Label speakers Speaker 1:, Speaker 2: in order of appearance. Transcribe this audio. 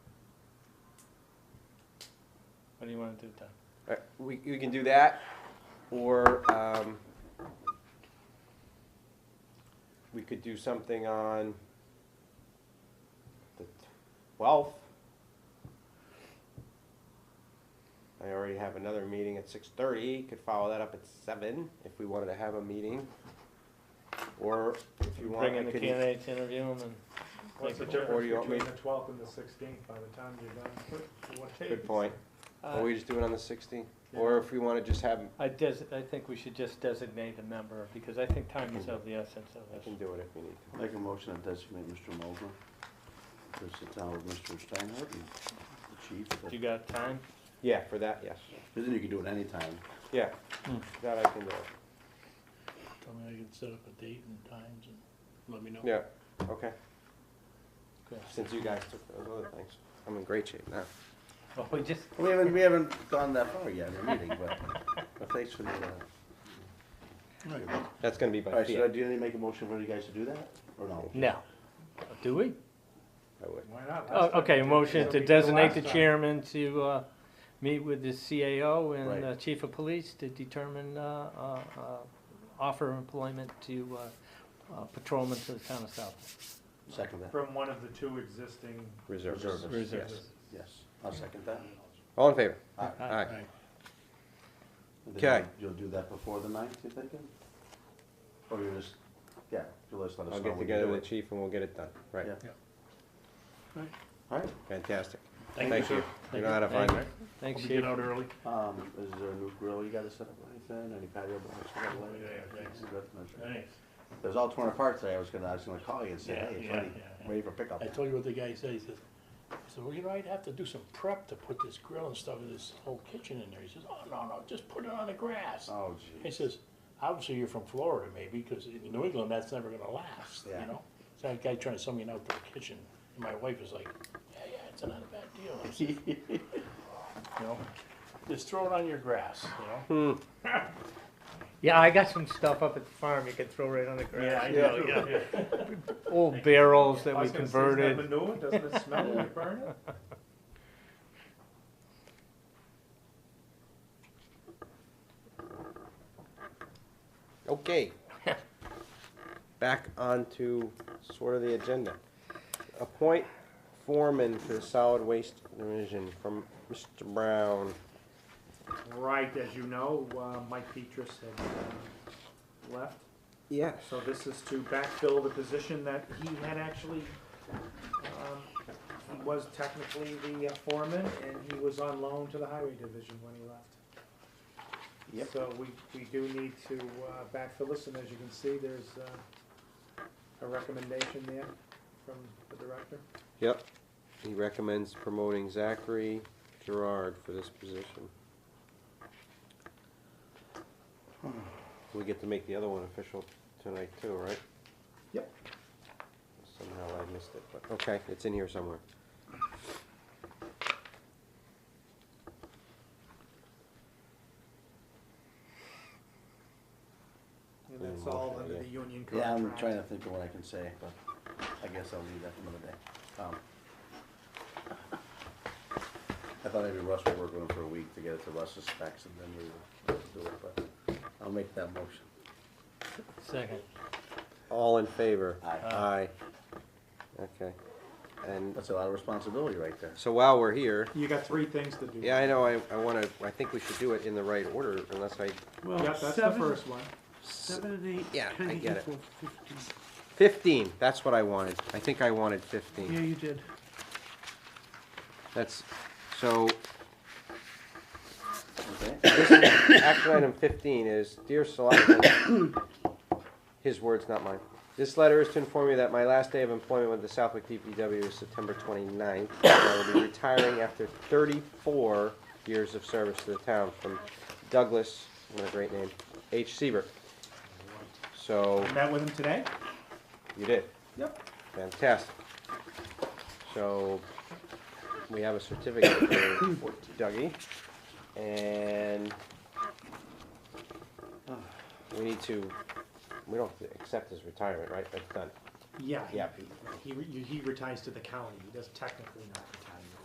Speaker 1: What do you want to do, Tom?
Speaker 2: All right, We, we can do that, or, um, we could do something on the twelfth. I already have another meeting at six thirty, could follow that up at seven, if we wanted to have a meeting. Or if you want,
Speaker 1: Bring
Speaker 2: I
Speaker 1: in the
Speaker 2: could,
Speaker 1: candidates, interview them, and
Speaker 3: What's the
Speaker 1: Make it work.
Speaker 2: Or you
Speaker 3: difference
Speaker 2: want me-
Speaker 3: between the twelfth and the sixteenth by the time you're done? with what
Speaker 2: good
Speaker 3: days?
Speaker 2: point,
Speaker 1: Uh,
Speaker 2: or we just do it on the sixteenth, or if we wanna just have,
Speaker 1: I des, I think we should just designate a member, because I think time is of the essence
Speaker 2: I
Speaker 1: of
Speaker 2: can
Speaker 1: this.
Speaker 2: do it if we need to.
Speaker 4: Make a motion to designate Mr. Mulder to sit down with Mr. Steinhardt and the chief.
Speaker 1: You got time?
Speaker 2: Yeah, for that, yes,
Speaker 4: Then you can do it anytime.
Speaker 2: yeah,
Speaker 1: Hmm.
Speaker 2: that I can do.
Speaker 5: Tell me I can set up a date and times and let me know.
Speaker 2: Yeah, okay.
Speaker 1: Okay.
Speaker 2: Since you guys took those other things, I'm in great shape now.
Speaker 1: Well, we just,
Speaker 4: We haven't, we haven't gone that far yet in the meeting, but but thanks for the, uh.
Speaker 2: That's gonna be
Speaker 4: All
Speaker 2: by
Speaker 4: right, so
Speaker 2: fiat.
Speaker 4: do you need to make a motion for you guys to do that, or no?
Speaker 1: no. Do we?
Speaker 2: I would.
Speaker 3: Why not?
Speaker 1: Oh,
Speaker 3: That's
Speaker 1: okay,
Speaker 3: what we
Speaker 1: motion
Speaker 3: did
Speaker 1: to
Speaker 3: the
Speaker 1: designate
Speaker 3: last
Speaker 1: the
Speaker 3: time.
Speaker 1: chairman to, uh, meet with the CAO
Speaker 4: Right.
Speaker 1: and uh, chief of police to determine, uh, uh, uh, offer employment to, uh, uh, patrolmen to the town of South.
Speaker 4: Second that,
Speaker 3: From one of the two existing.
Speaker 2: Reservists,
Speaker 4: Reservists.
Speaker 2: yes.
Speaker 4: yes, I'll second that.
Speaker 2: All in favor?
Speaker 4: All right.
Speaker 2: Aye.
Speaker 4: And then
Speaker 2: Okay.
Speaker 4: You'll you'll do that before the ninth, you thinking? Or you just, yeah, you'll just let us know.
Speaker 2: I'll get
Speaker 4: when you
Speaker 2: together
Speaker 4: do
Speaker 2: with the
Speaker 4: it.
Speaker 2: chief and we'll get it done. Right,
Speaker 4: Yeah.
Speaker 5: Right.
Speaker 4: All right,
Speaker 2: fantastic.
Speaker 5: Thank
Speaker 2: Thank you. You know how to find me.
Speaker 1: Thanks,
Speaker 5: Hope you
Speaker 1: chief.
Speaker 5: get out early.
Speaker 4: Um, is there a new grill you gotta set up or anything, any patio blocks? you gotta lay?
Speaker 5: Oh, Yeah, thanks.
Speaker 4: Is that not sure?
Speaker 5: Thanks.
Speaker 4: It was all torn apart today, I was gonna, I was gonna call you and say,
Speaker 5: Yeah,
Speaker 4: hey, it's
Speaker 5: yeah,
Speaker 4: ready,
Speaker 5: yeah, yeah.
Speaker 4: ready for pickup.
Speaker 5: I told you what the guy said, he says, I said, well, you know, I'd have to do some prep to put this grill and stuff, and this whole kitchen in there. He says, oh, no, no, just put it on the grass.
Speaker 4: Oh,
Speaker 5: He
Speaker 4: geez.
Speaker 5: says, obviously you're from Florida maybe, because in New England, that's never gonna last, you
Speaker 4: Yeah.
Speaker 5: know? So that guy trying to sell me an outdoor kitchen, and my wife is like, yeah, yeah, it's not a bad deal. I said, You know, just throw it on your grass, you know?
Speaker 1: Yeah, I got some stuff up at the farm you can throw right on the grass.
Speaker 3: Yeah,
Speaker 5: know,
Speaker 3: yeah.
Speaker 1: Old barrels that
Speaker 3: I
Speaker 1: we
Speaker 3: was gonna say, isn't that
Speaker 1: converted.
Speaker 3: Manure, doesn't it smell when you burn it?
Speaker 2: Okay. Hmm. Back onto sort of the agenda. Appoint foreman for the solid waste division from Mr. Brown.
Speaker 3: Right, as you know, uh, Mike Petrus had uh, left.
Speaker 2: Yes.
Speaker 3: So this is to backfill the position that he had actually, um, he was technically the uh, foreman, and he was on loan to the highway division when he left.
Speaker 4: Yep.
Speaker 3: So we, we do need to uh, backfill this, and as you can see, there's uh, a recommendation there from the director.
Speaker 2: Yep. He recommends promoting Zachary Gerard for this position. We get to make the other one official tonight too, right?
Speaker 3: Yep.
Speaker 2: Somehow I missed it, but, okay, it's in here somewhere.
Speaker 3: And that's all under the union contract.
Speaker 4: Yeah, I'm trying to think of what I can say, but I guess I'll leave that for another day. Um, I thought maybe Russ would work on it for a week to get it to Russ's specs and then we would do it, but I'll make that motion.
Speaker 1: Second.
Speaker 2: All in favor?
Speaker 4: Aye.
Speaker 2: Aye. Okay. And,
Speaker 4: That's a lot of responsibility right there.
Speaker 2: so while we're here,
Speaker 3: You got three things to do.
Speaker 2: yeah, I know, I, I wanna, I think we should do it in the right order unless I,
Speaker 3: Yep, that's the first one.
Speaker 5: Seven and eight.
Speaker 2: yeah, I get it. Fifteen, that's what I wanted. I think I wanted fifteen.
Speaker 5: you did.
Speaker 2: That's, so,
Speaker 4: Okay.
Speaker 2: action item fifteen is, dear selectman, his words, not mine. This letter is to inform you that my last day of employment with the Southwick DPW is September 29th. and I will be retiring after thirty-four years of service to the town from Douglas, what a great name, H. Seaver. So,
Speaker 3: Met with him today?
Speaker 2: you did.
Speaker 3: Yep.
Speaker 2: Fantastic. So, we have a certificate for Dougie, and we need to, we don't have to accept his retirement, right? That's done.
Speaker 3: Yeah. he-
Speaker 2: Yeah.
Speaker 3: He, re- he retires to the county, he does technically not.